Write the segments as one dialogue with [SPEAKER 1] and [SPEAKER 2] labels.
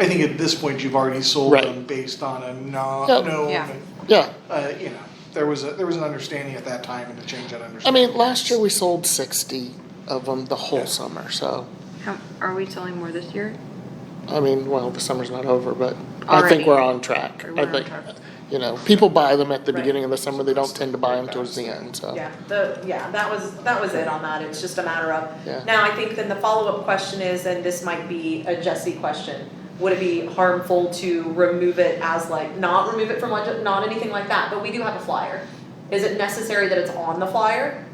[SPEAKER 1] I think at this point, you've already sold
[SPEAKER 2] Right.
[SPEAKER 1] them based on a no,
[SPEAKER 2] Yeah.
[SPEAKER 1] no,
[SPEAKER 3] Yeah.
[SPEAKER 2] Yeah,
[SPEAKER 1] uh, you know, there was a, there was an understanding at that time and to change that
[SPEAKER 2] I
[SPEAKER 1] understanding.
[SPEAKER 2] mean, last year we sold sixty of them the whole
[SPEAKER 1] Yeah.
[SPEAKER 2] summer, so,
[SPEAKER 3] How, are we selling more this year?
[SPEAKER 2] I mean, well, the summer's not over, but I think
[SPEAKER 3] Already.
[SPEAKER 2] we're on track.
[SPEAKER 3] We're
[SPEAKER 2] I
[SPEAKER 3] on
[SPEAKER 2] think,
[SPEAKER 3] track.
[SPEAKER 2] you know, people buy them at the
[SPEAKER 4] Right.
[SPEAKER 2] beginning of the summer, they don't tend to buy them towards the end, so.
[SPEAKER 4] Yeah, the, yeah, that was, that was it on that, it's just a matter of.
[SPEAKER 2] Yeah.
[SPEAKER 4] Now, I think then the follow-up question is, and this might be a Jesse question, would it be harmful to remove it as like, not remove it from legis, not anything like that, but we do have a flyer. Is it necessary that it's on the flyer?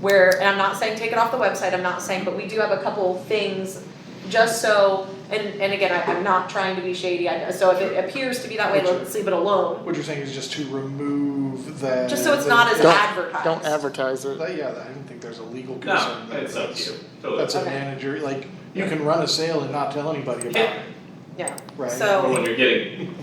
[SPEAKER 4] Where, and I'm not saying take it off the website, I'm not saying, but we do have a couple things, just so, and, and again, I, I'm not trying to be shady, I, so if it appears to be that way, let's leave it alone,
[SPEAKER 1] What you're saying is just to remove the.
[SPEAKER 4] just so it's
[SPEAKER 1] the-
[SPEAKER 4] not as
[SPEAKER 2] Don't-
[SPEAKER 4] advertised.
[SPEAKER 2] Don't advertise it.
[SPEAKER 1] But yeah, I don't think there's a legal
[SPEAKER 5] No,
[SPEAKER 1] concern. that
[SPEAKER 5] it's up to you, totally.
[SPEAKER 1] That's a
[SPEAKER 4] Okay.
[SPEAKER 1] manager, like, you can run a sale and not tell anybody about
[SPEAKER 5] Yeah.
[SPEAKER 1] it,
[SPEAKER 4] Yeah,
[SPEAKER 1] right?
[SPEAKER 4] so.
[SPEAKER 5] Or when you're getting,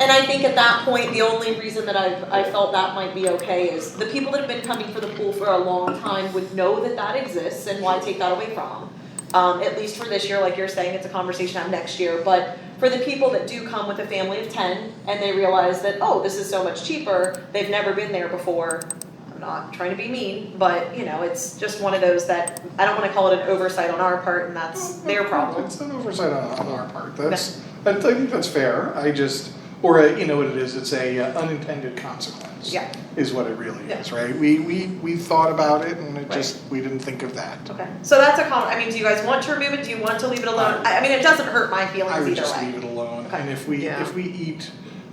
[SPEAKER 4] And I think at that point, the only reason that I, I felt that might be okay is the people that have been coming for the pool for a long time would know that that exists and why take that away from them. Um, at least for this year, like you're saying, it's a conversation out next year, but for the people that do come with a family of ten and they realize that, oh, this is so much cheaper, they've never been there before. I'm not trying to be mean, but you know, it's just one of those that, I don't wanna call it an oversight on our part and that's their problem.
[SPEAKER 1] It's an oversight on, on our part, that's, I think that's fair, I just, or, uh, you know what it is, it's a uh, unintended consequence.
[SPEAKER 4] Yeah.
[SPEAKER 1] Is what it really
[SPEAKER 4] Yeah.
[SPEAKER 1] is, right? We, we, we thought about it and it
[SPEAKER 4] Right.
[SPEAKER 1] just, we didn't think of that.
[SPEAKER 4] Okay, so that's a comment, I mean, do you guys want to remove it, do you want to leave it alone? I, I mean, it doesn't hurt my feelings
[SPEAKER 1] I would
[SPEAKER 4] either
[SPEAKER 1] just
[SPEAKER 4] way.
[SPEAKER 1] leave it alone,
[SPEAKER 4] Okay.
[SPEAKER 1] and if we,
[SPEAKER 3] Yeah.
[SPEAKER 1] if we eat,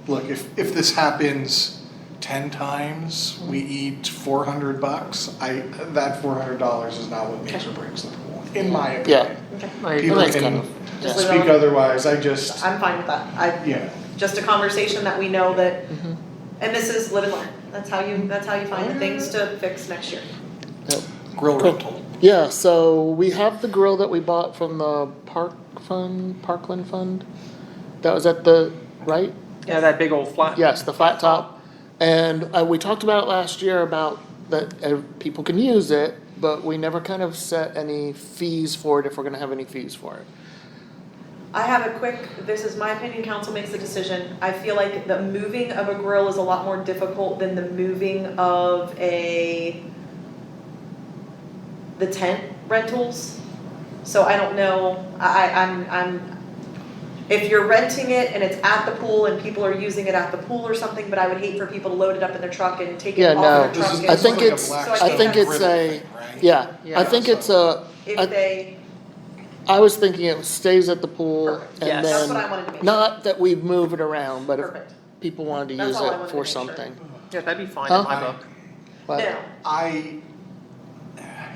[SPEAKER 1] look, if, if this happens ten times, we eat four hundred bucks, I, that four hundred dollars is not what makes or breaks the pool, in my
[SPEAKER 2] Yeah.
[SPEAKER 1] opinion.
[SPEAKER 4] Okay,
[SPEAKER 2] Right,
[SPEAKER 1] People
[SPEAKER 2] that's
[SPEAKER 1] can
[SPEAKER 2] kind of-
[SPEAKER 4] Just
[SPEAKER 2] yeah.
[SPEAKER 4] leave it
[SPEAKER 1] Speak
[SPEAKER 4] alone.
[SPEAKER 1] otherwise, I just,
[SPEAKER 4] I'm fine with that, I,
[SPEAKER 1] yeah,
[SPEAKER 4] just a conversation that we know that,
[SPEAKER 2] Mhm.
[SPEAKER 4] and this is live and learn, that's how you, that's how you find the things to fix next year.
[SPEAKER 2] Yep.
[SPEAKER 1] grill
[SPEAKER 2] Cool.
[SPEAKER 1] rental.
[SPEAKER 2] Yeah, so we have the grill that we bought from the park fund, Parkland Fund. That was at the, right?
[SPEAKER 6] Yeah, that big old flat.
[SPEAKER 2] Yes, the flat top. And uh, we talked about it last year about that uh, people can use it, but we never kind of set any fees for it if we're gonna have any fees for it.
[SPEAKER 4] I have a quick, this is my opinion, council makes the decision, I feel like the moving of a grill is a lot more difficult than the moving of a the tent rentals, so I don't know, I I- I'm I'm if you're renting it and it's at the pool and people are using it at the pool or something, but I would hate for people to load it up in their truck and take
[SPEAKER 2] Yeah,
[SPEAKER 4] it off
[SPEAKER 2] no.
[SPEAKER 4] their
[SPEAKER 1] This
[SPEAKER 4] truck
[SPEAKER 1] is,
[SPEAKER 4] and.
[SPEAKER 2] I think it's-
[SPEAKER 4] I think
[SPEAKER 2] it's a- Yeah, I
[SPEAKER 6] Yeah.
[SPEAKER 2] think it's a, I-
[SPEAKER 4] If they,
[SPEAKER 2] I was thinking it stays at the pool
[SPEAKER 4] Perfect.
[SPEAKER 2] and
[SPEAKER 6] Yes.
[SPEAKER 4] that's what I
[SPEAKER 2] then,
[SPEAKER 4] wanted to make, sure.
[SPEAKER 2] not that we move it around, but if
[SPEAKER 4] perfect,
[SPEAKER 2] people wanted to
[SPEAKER 4] That's
[SPEAKER 2] use
[SPEAKER 4] all I wanted
[SPEAKER 2] it
[SPEAKER 4] to
[SPEAKER 2] for
[SPEAKER 4] make sure.
[SPEAKER 2] something.
[SPEAKER 6] Yeah, that'd be fine
[SPEAKER 2] Huh?
[SPEAKER 6] in my book.
[SPEAKER 2] but-
[SPEAKER 4] No.
[SPEAKER 1] I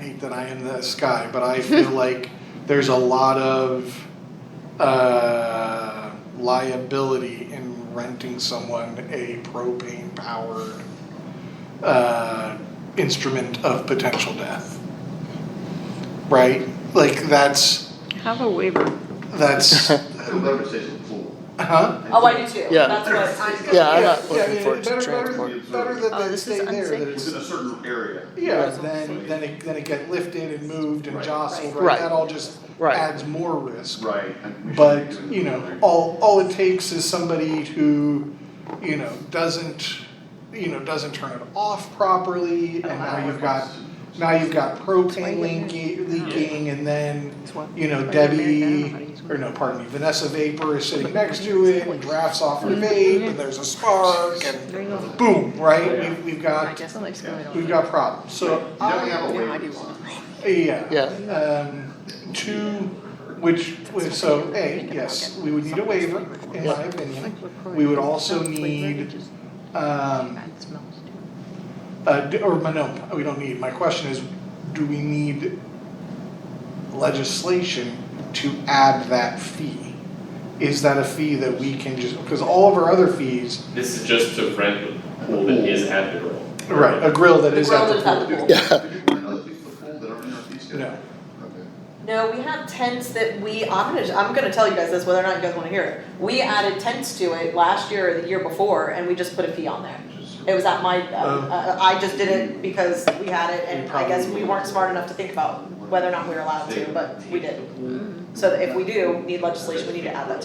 [SPEAKER 1] hate that I am this guy, but I feel like there's a lot of uh, liability in renting someone a propane powered uh, instrument of potential death. Right? Like that's
[SPEAKER 3] Have a
[SPEAKER 1] Uh,
[SPEAKER 3] waiver.
[SPEAKER 1] that's
[SPEAKER 7] Whoever says it's full.
[SPEAKER 1] huh?
[SPEAKER 4] oh, I do too,
[SPEAKER 2] Yeah.
[SPEAKER 4] that's what I'm.
[SPEAKER 2] Yeah, I'm
[SPEAKER 1] Yeah,
[SPEAKER 2] not
[SPEAKER 1] yeah,
[SPEAKER 2] looking
[SPEAKER 1] yeah,
[SPEAKER 2] for it to
[SPEAKER 1] better- better-
[SPEAKER 2] transport.
[SPEAKER 1] Better that
[SPEAKER 3] Oh,
[SPEAKER 1] they
[SPEAKER 3] this is
[SPEAKER 1] stay there, that
[SPEAKER 3] unsafe.
[SPEAKER 1] it's
[SPEAKER 7] It's in a certain area.
[SPEAKER 1] Yeah,
[SPEAKER 2] Right.
[SPEAKER 1] then, then it, then it get lifted and moved and
[SPEAKER 7] Right.
[SPEAKER 1] jostled,
[SPEAKER 2] Right.
[SPEAKER 1] right, that all just
[SPEAKER 2] Right.
[SPEAKER 1] adds more risk.
[SPEAKER 7] Right. and we should be
[SPEAKER 1] But,
[SPEAKER 7] doing
[SPEAKER 1] you know,
[SPEAKER 7] that.
[SPEAKER 1] all, all it takes is somebody who, you know, doesn't, you know, doesn't turn it off properly, and now you've got, now you've got propane leaking, leaking, and then, you know, Debbie, or no, pardon me, Vanessa Vapor is sitting next to it, and drafts off her vape, and there's a spark, and
[SPEAKER 3] There you go.
[SPEAKER 1] boom, right,
[SPEAKER 7] Yeah.
[SPEAKER 1] we've, we've
[SPEAKER 3] I
[SPEAKER 1] got,
[SPEAKER 3] guess I'll explain
[SPEAKER 1] we've got problems, so. um,
[SPEAKER 7] You definitely have a
[SPEAKER 3] Yeah, I do
[SPEAKER 7] waiver.
[SPEAKER 3] want.
[SPEAKER 1] Yeah.
[SPEAKER 2] Yeah.
[SPEAKER 1] Um, two, which, which- so, A,
[SPEAKER 3] Thinking
[SPEAKER 1] yes,
[SPEAKER 3] about
[SPEAKER 1] we would need a waiver, in
[SPEAKER 2] Yeah.
[SPEAKER 1] my opinion. We would also need, Um, uh, d- or, no, we don't need, my question is, do we need legislation to add that fee? Is that a fee that we can just, because all of our other fees,
[SPEAKER 5] this is just to rent the pool that is at the grill.
[SPEAKER 1] right, a grill that
[SPEAKER 4] The
[SPEAKER 1] is at
[SPEAKER 4] grill
[SPEAKER 1] the
[SPEAKER 4] is at the
[SPEAKER 1] pool.
[SPEAKER 4] pool.
[SPEAKER 2] Yeah.
[SPEAKER 7] Do you find other people at full that aren't in our fee schedule?
[SPEAKER 1] No.
[SPEAKER 7] Okay.
[SPEAKER 4] No, we have tents that we, I'm gonna, I'm gonna tell you guys this, whether or not you guys wanna hear it. We added tents to it last year or the year before, and we just put a fee on there.
[SPEAKER 7] Just-
[SPEAKER 4] It was at my, uh,
[SPEAKER 1] Oh.
[SPEAKER 4] uh, I just did it because we had it, and I guess we
[SPEAKER 7] Probably.
[SPEAKER 4] weren't smart enough to think about whether or not we were allowed to, but we did. So that if we do need legislation, we need to add that to